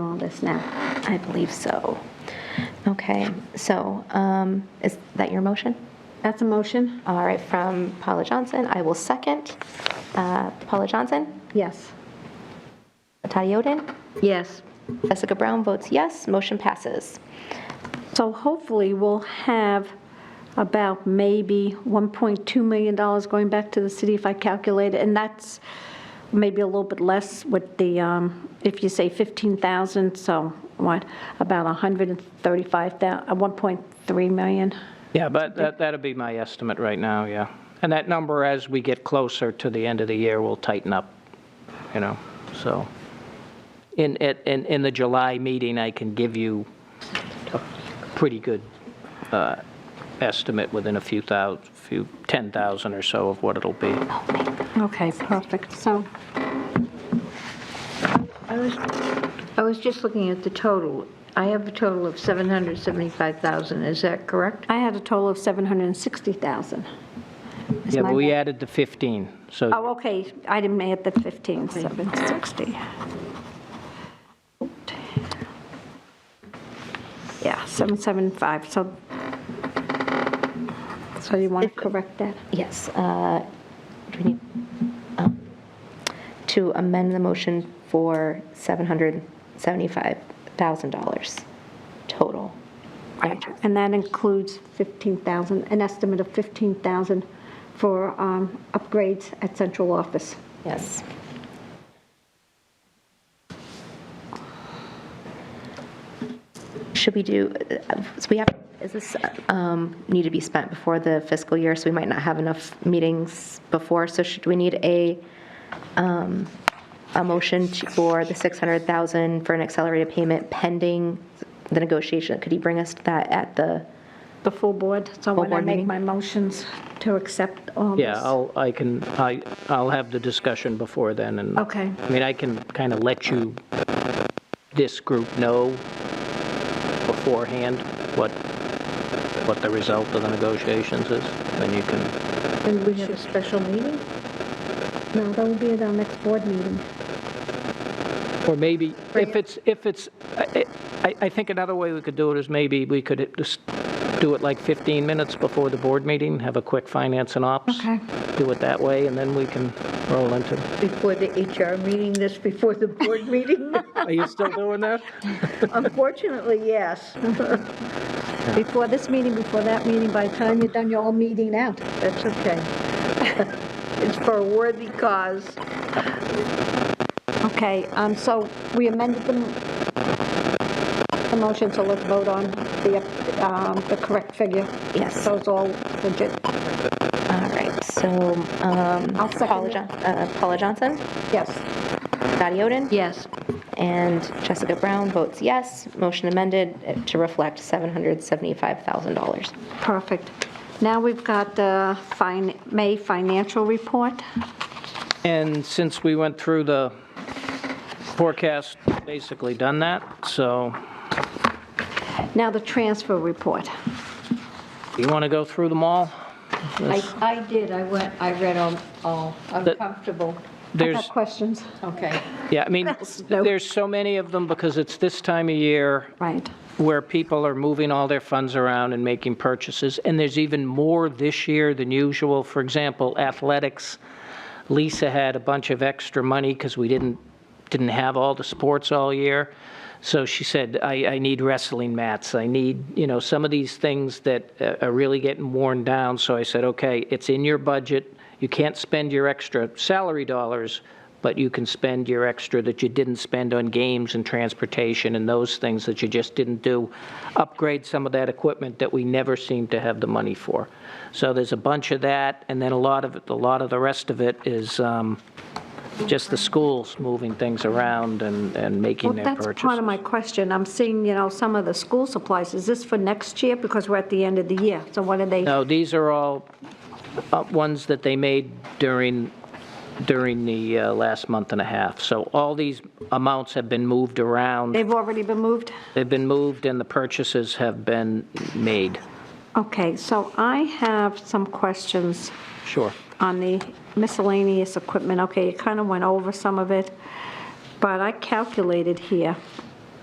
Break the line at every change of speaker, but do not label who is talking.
all this now? I believe so. Okay, so um, is that your motion?
That's a motion?
All right, from Paula Johnson, I will second. Uh, Paula Johnson,
Yes.
Tati Oden,
Yes.
Jessica Brown votes yes, motion passes.
So hopefully, we'll have about maybe $1.2 million going back to the city if I calculate it. And that's maybe a little bit less with the, um, if you say 15,000, so what, about 135,000, 1.3 million?
Yeah, but that, that'd be my estimate right now, yeah. And that number, as we get closer to the end of the year, will tighten up, you know, so. In, at- in, in the July meeting, I can give you a pretty good uh, estimate within a few thousand, few, 10,000 or so of what it'll be.
Okay, perfect. So,
I was, I was just looking at the total. I have a total of 775,000, is that correct?
I had a total of 760,000. Is
Yeah,
my
but we
math-
added the 15,
Oh,
so
okay, I didn't add the 15, 760. Yeah, 775, so, so you want to correct that?
Yes, uh, do we need, um, to amend the motion for $775,000 total.
Right. And that includes 15,000, an estimate of 15,000 for um, upgrades at central office.
Yes. Should we do, uh, so we have, is this um, need to be spent before the fiscal year, so we might not have enough meetings before, so should we need a, um, a motion to- for the 600,000 for an accelerated payment pending the negotiation? Could he bring us that at the,
The full board, so when I
board
make
meeting?
my motions to accept all this.
yeah, I'll, I can, I, I'll have the discussion before then and.
Okay.
I mean, I can kind of let you, this group know beforehand what, what the result of the negotiations is, and you can,
Then we have a special meeting?
No, that will be at our next board meeting.
or maybe, if it's, if it's, I, I I think another way we could do it is maybe we could just do it like 15 minutes before the board meeting, have a quick finance and ops.
Okay.
Do it that way, and then we can roll into,
Before the HR meeting, this before the board meeting?
are you still doing that?
Unfortunately, yes.
Before this meeting, before that meeting, by the time you're done, you're all meeting out.
That's okay. It's for a worthy cause.
Okay, um, so we amended the, the motion, so let's vote on the, um, the correct figure.
Yes.
So it's all legit.
all right, so um,
I'll second
Paula
it.
Jon- uh, Paula Johnson,
Yes.
Dottie Oden?
Yes.
And Jessica Brown votes yes. Motion amended to reflect $775,000.
Perfect. Now we've got the fin, May financial report.
And since we went through the forecast, basically done that, so
Now the transfer report.
you want to go through them all?
I, I did, I went, I read all, all, I'm
That-
comfortable.
I
There's,
got questions.
Okay.
yeah, I mean,
No.
there's so many of them because it's this time of year
Right.
where people are moving all their funds around and making purchases, and there's even more this year than usual. For example, athletics, Lisa had a bunch of extra money because we didn't, didn't have all the sports all year. So she said, I, I need wrestling mats, I need, you know, some of these things that uh, are really getting worn down. So I said, okay, it's in your budget, you can't spend your extra salary dollars, but you can spend your extra that you didn't spend on games and transportation and those things that you just didn't do. Upgrade some of that equipment that we never seem to have the money for. So there's a bunch of that, and then a lot of, it- a lot of the rest of it is um, just the schools moving things around and, and making
Well,
their
that's part
purchases.
of my question. I'm seeing, you know, some of the school supplies. Is this for next year? Because we're at the end of the year. So what are they?
No, these are all uh, ones that they made during, during the uh, last month and a half. So all these amounts have been moved around.
They've already been moved?
They've been moved and the purchases have been made.
Okay, so I have some questions
Sure.
on the miscellaneous equipment. Okay, you kind of went over some of it, but I calculated here.